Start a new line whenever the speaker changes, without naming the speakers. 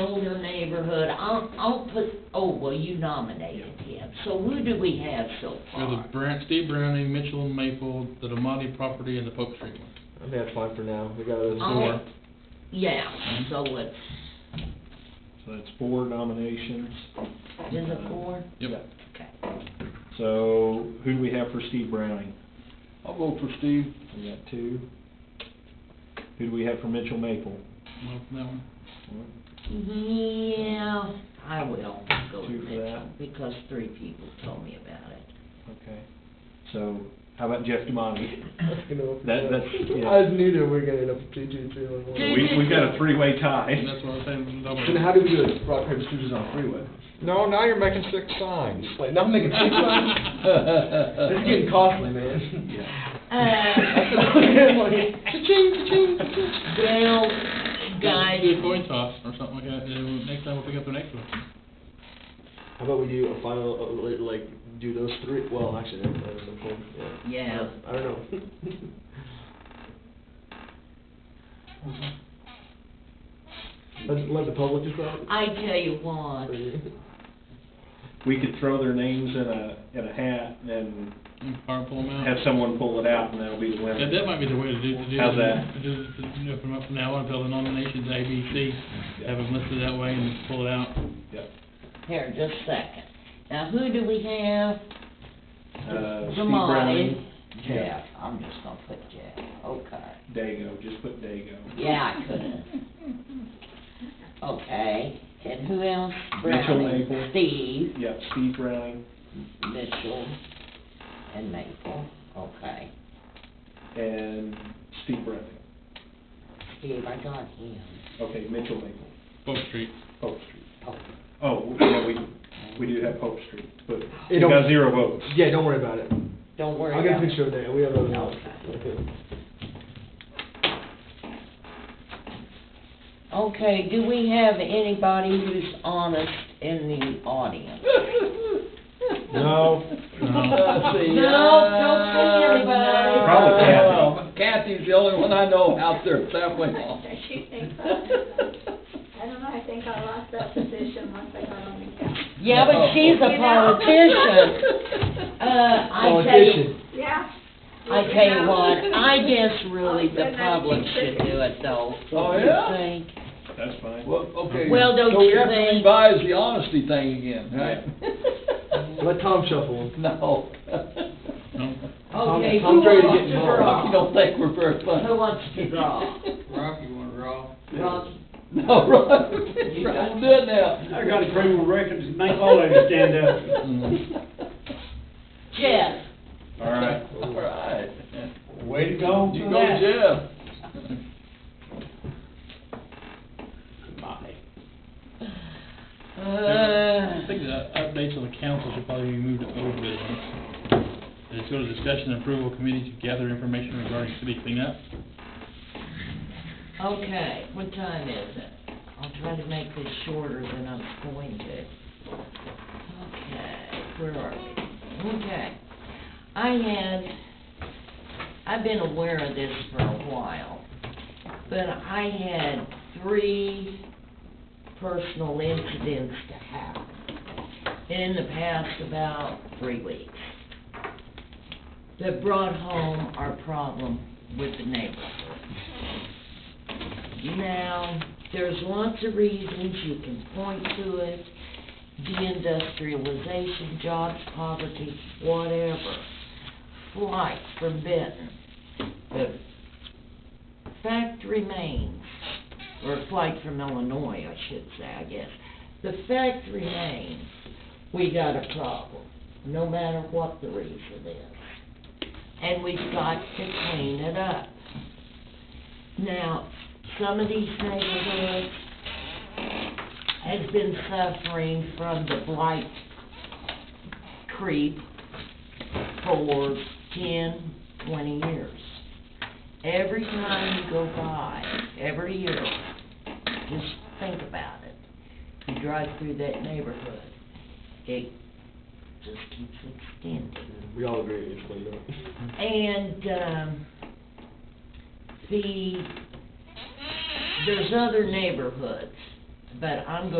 older neighborhood, I'll, I'll put, oh, well, you nominated him, so who do we have so
You're the
far?
Brant, Steve Browning, Mitchell and Maple, the Damati property, and the Pope Street one.
I think that's fine for now, we got those
Oh,
four.
Mm-hmm.
Yeah, so it's,
So that's four nominations.
is it four?
Yep.
Okay.
So who do we have for Steve Browning?
I'll vote for Steve.
We got two. Who do we have for Mitchell Maple?
Well, that one.
Yeah, I will go with
Two for
Mitchell,
that.
because three people told me about it.
Okay. So how about Jeff Damati?
You know, if
That-
we-
that's- yeah.
I knew that we were gonna end up with two, two, two, and one.
Dude.
We, we've got a three-way
And
tie.
that's what I was saying. that
Then
one.
how do we do it? Rock, paper, scissors on a freeway?
No, now you're making six signs.
Like, now I'm making six lines? This is getting costly, man.
Uh, Well, guys,
Do a coin toss or something like that, and next time we'll pick up the next one.
How about we do a final, uh, li- like, do those three, well, actually, that that was simple, yeah.
Yeah.
I don't know. Let, let the public decide.
I tell you what,
We could throw their names in a, in a hat and
And power pull them out.
have someone pull it out and that'll be the winner.
That, that might be the way to do, to do.
How's that?
To do, to, you know, from up from now on, fill the nominations A, B, C,
Yeah.
have them listed that way and pull it out.
Yep.
here, just a second. Now, who do we have?
Uh, Steve
Zamani.
Browning.
Jeff, I'm just gonna put Jeff, okay.
Dago, just put Dago.
Yeah, I could've. Okay, and who else?
Mitchell
Browning,
Maple.
Steve,
Yep, Steve Browning
Mitchell, and Maple, okay.
and Steve Browning.
Steve, I got him.
Okay, Mitchell Maple,
Pope Street.
Pope Street.
Oh,
Oh, well, we, we do have Pope Street, but
It
we
don't-
got zero votes.
Yeah, don't worry about it.
Don't worry
I'll
about it.
get a picture of that, we have those out.
Okay, do we have anybody who's honest in the audience?
No.
Uh,
Let's see,
No, don't say
uh,
anybody.
Probably
Oh,
no. Kathy's the only one I know out there, halfway off.
She thinks I don't know, I think I lost that position once I got on the council.
Yeah, but she's a
You know?
politician. Uh, I tell you,
Politician.
Yeah.
I tell you what, I guess really
Oh,
the
good,
public
nice.
should do it though.
Oh,
Don't you
yeah?
think?
That's fine.
Well, okay.
Well, don't
So we
you
have to
think-
revise the honesty thing again, right?
Let Tom shuffle.
No.
No.
Okay, who
I'm ready to
wants to
get involved.
You
draw?
don't think we're very funny?
Who wants to draw?
Rocky wanna draw.
Rocky?
No, Ron, Ron, do it now.
I got a criminal record, make all of you stand up.
Jeff?
All right.
All right.
Way to go
You
for
go,
that.
Jeff.
I think
Uh,
the updates on the council should probably be moved to old business. And it's go to discussion and approval committee to gather information regarding city cleanup.
Okay, what time is it? I'll try to make this shorter than I'm going to. Okay, where are we? Okay. I had, I've been aware of this for a while, but I had three personal incidents to happen in the past about three weeks that brought home our problem with the neighborhood. Now, there's lots of reasons you can point to it, deindustrialization, jobs, poverty, whatever, flight from Benton. The fact remains, or flight from Illinois, I should say, I guess. The fact remains, we got a problem, no matter what the reason is. And we've got to clean it up. Now, some of these neighborhoods has been suffering from the blight creep for ten, twenty years. Every time you go by, every year, just think about it. You drive through that neighborhood, it just keeps extending.
We all agree, it's cleaned up.
And, um, the, there's other neighborhoods but I'm